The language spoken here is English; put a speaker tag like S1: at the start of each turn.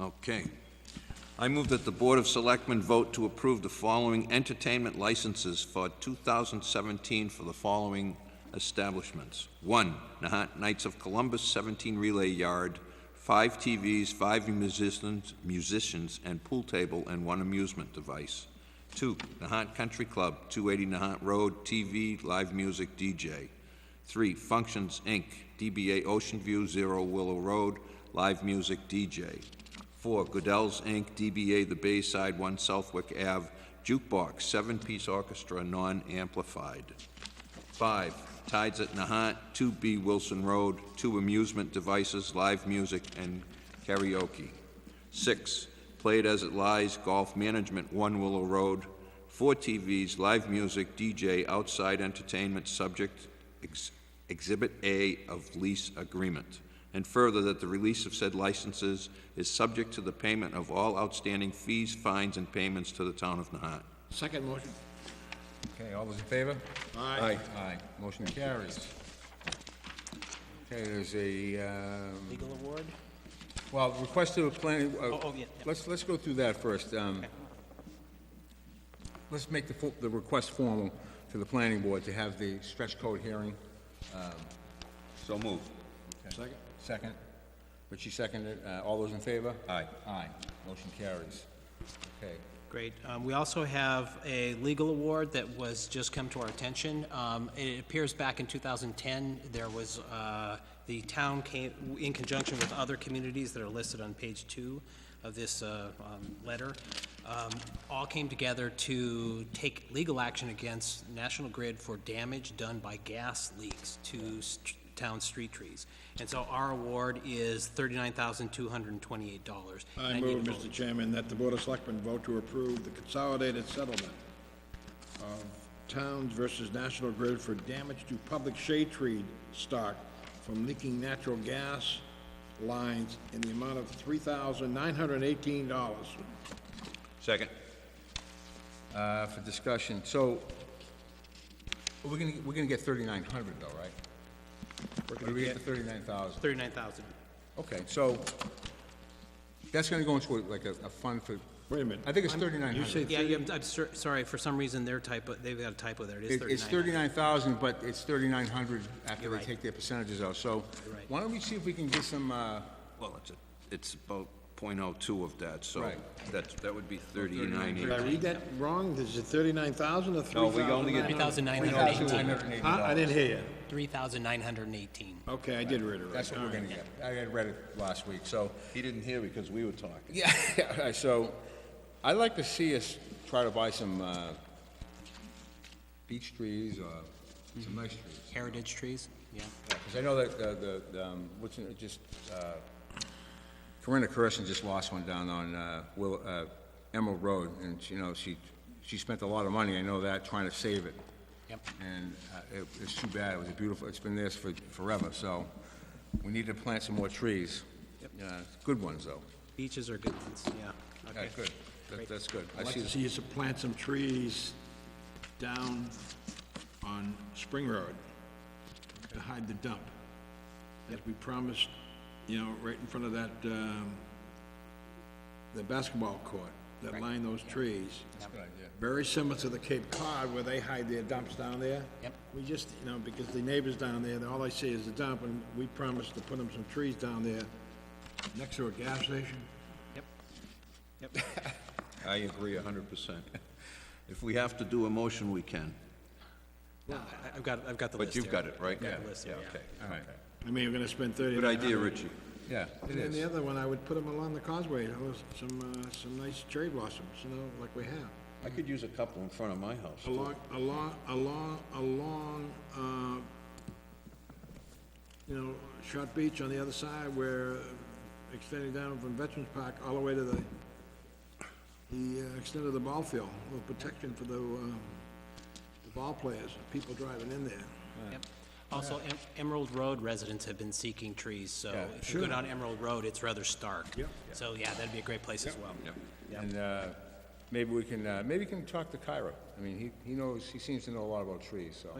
S1: Okay. I move that the Board of Selectmen vote to approve the following entertainment licenses for 2017 for the following establishments. One, Nahat Knights of Columbus 17 Relay Yard, five TVs, five musicians, musicians, and pool table, and one amusement device. Two, Nahat Country Club, 280 Nahat Road, TV, live music, DJ. Three, Functions, Inc., DBA Ocean View, Zero Willow Road, live music, DJ. Four, Goodell's Inc., DBA The Bayside, One Southwick Ave, jukebox, seven-piece orchestra, non-amplified. Five, Tides at Nahat, two B Wilson Road, two amusement devices, live music and karaoke. Six, Played As It Lies Golf Management, One Willow Road, four TVs, live music, DJ, outside entertainment, subject ex- Exhibit A of lease agreement. And further, that the release of said licenses is subject to the payment of all outstanding fees, fines, and payments to the town of Nahat.
S2: Second motion.
S3: Okay, all those in favor?
S2: Aye.
S3: Aye, motion carries. Okay, there's a, um,
S4: Legal award?
S3: well, request to a planning, uh,
S4: Oh, oh, yeah, yeah.
S3: let's, let's go through that first. um, Let's make the, fo- the request formal to the planning board to have the stretch code hearing.
S1: So move.
S3: Second? Second. Richie seconded, Uh, all those in favor? Aye. Aye, motion carries. Okay.
S4: Great. Um, We also have a legal award that was just come to our attention. Um, It appears back in 2010, there was, uh, the town came, in conjunction with other communities that are listed on page two of this uh, um, letter, um, all came together to take legal action against National Grid for damage done by gas leaks to st- town street trees. And so our award is $39,228. And
S2: I
S4: need
S2: move,
S4: a
S2: Mr. Chairman, that the Board of Selectmen vote to approve the consolidated settlement of towns versus National Grid for damage to public shade tree stock from leaking natural gas lines in the amount of three thousand nine hundred and eighteen dollars.
S1: Second.
S3: Uh, for discussion, so, we're gonna, we're gonna get thirty-nine hundred though, right? We're gonna get the thirty-nine thousand.
S4: 39000
S3: Okay, so, that's gonna go into like a, a fund for,
S2: Wait a minute.
S3: I think it's thirty-nine
S2: You
S3: hundred.
S2: said
S4: Yeah, yeah, I'm, I'm sor- sorry, for some reason, their typo, they've got a typo there, it is
S3: It's
S4: thirty-nine.
S3: thirty-nine thousand, but it's thirty-nine hundred after they
S4: right.
S3: take their percentages out, so,
S4: right.
S3: why don't we see if we can get some, uh,
S1: Well, it's, a- it's about .02 of that, so
S3: Right.
S1: that's, that would be 39.
S2: did I read that wrong? Is it thirty-nine thousand or three
S1: No,
S2: thousand?
S1: we only get-
S4: Three thousand nine hundred eighteen.
S3: thirty-nine hundred and eighty
S2: Huh? I
S3: dollars.
S2: didn't hear you.
S4: Three thousand nine hundred and eighteen.
S2: Okay, I did read it right.
S3: That's what we're gonna get. I had read it last week, so,
S1: He didn't hear because we were talking.
S3: Yeah, all right, so I'd like to see us try to buy some uh, beech trees or some nice trees.
S4: Heritage trees, yeah.
S3: Because I know that uh, the, the, um, what's, in- just, uh, Corinna Carson just lost one down on uh, Will, uh, Emerald Road, and, she- you know, she, she spent a lot of money, I know that, trying to save it.
S4: Yep.
S3: And uh, it- it's too bad, it was a beautiful, it's been theirs for forever, so we need to plant some more trees. Uh, Good ones, though.
S4: Beaches are good ones, yeah.
S3: Yeah,
S4: Okay.
S3: good. That- That's good. I
S2: I'd like
S3: see
S2: to see us plant some trees down on Spring Road to hide the dump. As we promised, you know, right in front of that, um, the basketball court that line those trees. Very similar to the Cape Cod where they hide their dumps down there.
S4: Yep.
S2: We just, you know, because the neighbors down there, all they see is the dump and we promised to put them some trees down there next to a gas station.
S4: Yep.
S1: I agree hundred percent. If we have to do a motion, we can.
S4: No, I- I've got, I've got the list
S1: But you've
S4: here.
S1: got it, right?
S4: I've got the list here, yeah.
S1: okay.
S3: All right.
S2: I mean, we're gonna spend thirty.
S1: Good idea, Richie.
S3: Yeah, it
S2: And then
S3: is.
S2: the other one, I would put them along the causeway, you know, some, uh, some nice cherry blossoms, you know, like we have.
S1: I could use a couple in front of my house. too.
S2: Along, along, along, along, uh, you know, Shot Beach on the other side where, uh, extending down from Veterans Park all the way to the, the uh, extent of the ball field, a little protection for the, um, the ball players, people driving in there.
S4: Yep. Also, Em- Emerald Road residents have been seeking trees, so if you go
S2: sure.
S4: down Emerald Road, it's rather stark.
S2: Yep.
S4: So, yeah, that'd be a great place as well.
S3: And uh, maybe we can, uh, maybe we can talk to Kyra. I mean, he he knows, he seems to know a lot about trees, so.